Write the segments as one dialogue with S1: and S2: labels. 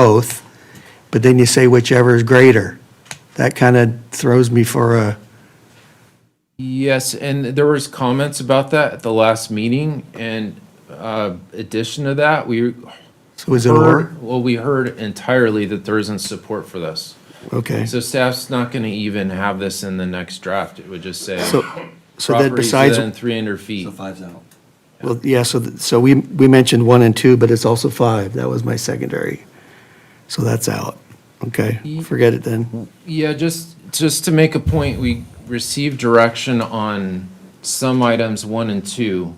S1: both, but then you say whichever is greater. That kind of throws me for a,
S2: Yes, and there was comments about that at the last meeting, and uh, addition to that, we
S1: so is it or?
S2: heard, well, we heard entirely that there isn't support for this.
S1: Okay.
S2: So staff's not gonna even have this in the next draft, it would just say
S1: So, so that
S2: properties
S1: besides,
S2: within three hundred feet.
S3: So five's out.
S1: well, yeah, so, th- so we, we mentioned one and two, but it's also five. That was my secondary. So that's out. Okay, forget it then.
S2: Yeah, just, just to make a point, we received direction on some items, one and two,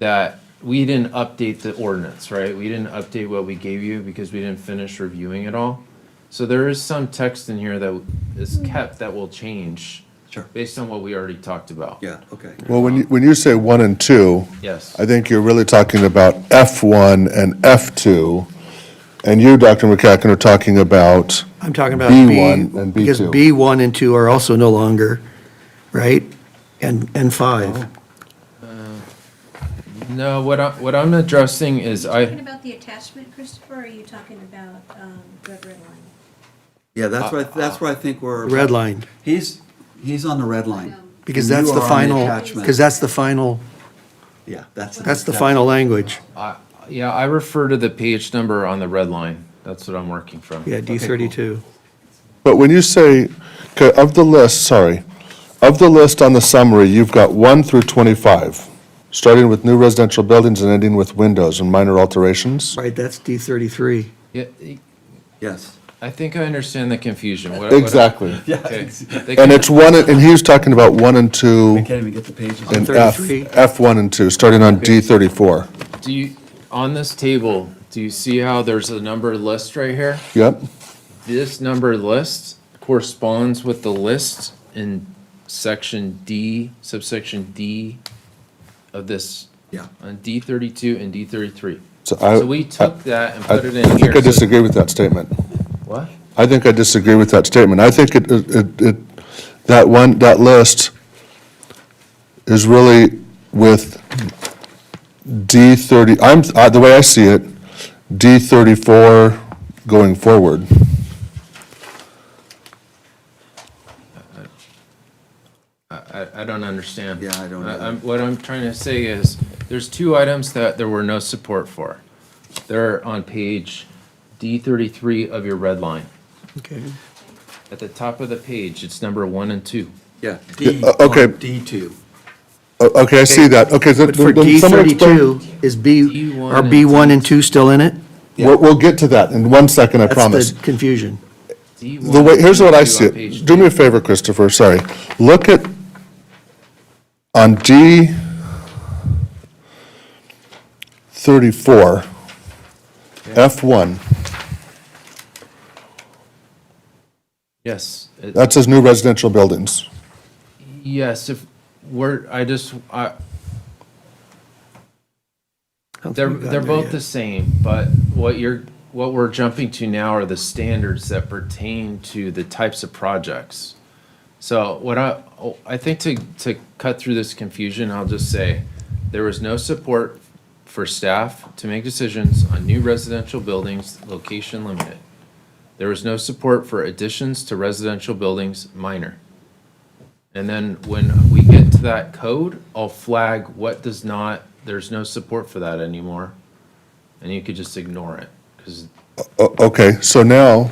S2: that we didn't update the ordinance, right? We didn't update what we gave you because we didn't finish reviewing it all. So there is some text in here that is kept that will change.
S3: Sure.
S2: Based on what we already talked about.
S3: Yeah, okay.
S4: Well, when you, when you say one and two,
S2: Yes.
S4: I think you're really talking about F1 and F2, and you, Dr. McCacken, are talking about,
S1: I'm talking about B.
S4: B1 and
S1: Because
S4: B2.
S1: B one and two are also no longer, right? And, and
S3: Oh,
S1: five.
S2: No, what I, what I'm addressing is
S5: Talking
S2: I,
S5: about the attachment, Christopher, or are you talking about um, red red line?
S3: Yeah, that's where, I- that's where I think we're.
S1: Red line,
S3: He's, he's on the red line.
S1: because
S3: And you
S1: that's the
S3: are on
S1: final,
S3: attachment.
S1: because that's the final,
S3: Yeah, that's.
S1: that's the final language.
S2: I, yeah, I refer to the page number on the red line. That's what I'm working from.
S1: Yeah, D thirty-two.
S4: but when you say, okay, of the list, sorry, of the list on the summary, you've got 1 through 25, starting with new residential buildings and ending with windows and minor alterations?
S1: Right, that's D thirty-three.
S2: Yeah,
S3: Yes.
S2: I think I understand the confusion. What- what-
S4: Exactly.
S3: Yeah.
S2: okay. They can-
S4: And it's one, and he was talking about 1 and 2
S3: We can't even get the pages.
S4: and
S3: on-
S4: F,
S1: 33.
S4: F1 and 2, starting on D34.
S2: Do you, on this table, do you see how there's a number list right here?
S4: Yep,
S2: This number list corresponds with the list in section D, subsection D of this,
S3: Yeah.
S2: on D thirty-two and D thirty-three.
S4: so I.
S2: So we took that and
S4: I
S2: put it in here.
S4: I think
S2: so-
S4: I disagree with that statement.
S2: What?
S4: I think I disagree with that statement. I think it, it, it, that one, that list is really with D thirty, I'm, uh, the way I see it, D thirty-four going forward.
S2: I, I don't understand.
S3: Yeah, I don't
S2: I-
S3: either.
S2: I'm- What I'm trying to say is, there's two items that there were no support for. They're on page D thirty-three of your red line.
S1: Okay.
S2: At the top of the page, it's number one and two.
S3: Yeah. D,
S4: uh, okay.
S3: D two.
S4: O- Okay, I see that, okay. then-
S1: But for
S4: then
S1: D
S4: someone explain-
S1: thirty-two, is B,
S2: D1
S1: are
S2: and
S1: B one and two still in it?
S4: We'll, we'll get to that in one second, I
S1: That's
S4: promise.
S1: the confusion.
S4: The way, here's what I see it. Do me a favor, Christopher, sorry. Look at, on D thirty-four, F one,
S2: Yes, it-
S4: that says new residential buildings.
S2: yes, if, we're, I just, I,
S1: I don't think
S2: They're,
S1: we've gotten there
S2: they're both
S1: yet.
S2: the same, but what you're, what we're jumping to now are the standards that pertain to the types of projects. So what I, oh, I think to, to cut through this confusion, I'll just say, there was no support for staff to make decisions on new residential buildings, location limited. There was no support for additions to residential buildings, minor. And then when we get to that code, I'll flag what does not, there's no support for that anymore. And you could just ignore it, because
S4: O- okay, so now,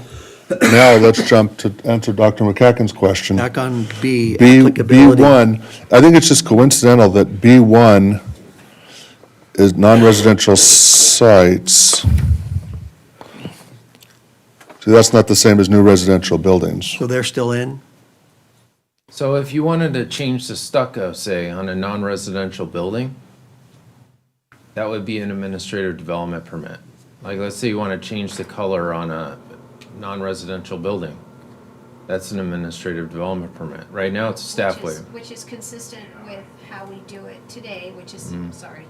S4: now let's jump to answer Dr. McCacken's question.
S1: Back on B,
S4: B,
S1: applicability.
S4: B1, I think it's just coincidental that B1 is non-residential sites. See, that's not the same as new residential buildings.
S1: So they're still in?
S2: so if you wanted to change the stucco, say, on a non-residential building, that would be an administrative development permit. Like, let's say you want to change the color on a non-residential building. That's an administrative development permit. Right now, it's a staff
S5: Which is-
S2: waiver.
S5: Which is consistent with how we do it today, which is, sorry.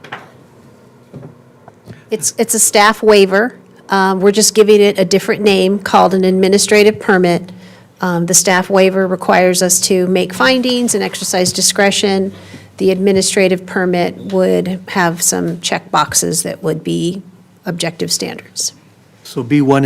S6: It's, it's a staff waiver. Um, We're just giving it a different name called an administrative permit. Um, The staff waiver requires us to make findings and exercise discretion. The administrative permit would have some check boxes that would be objective standards.
S1: So B1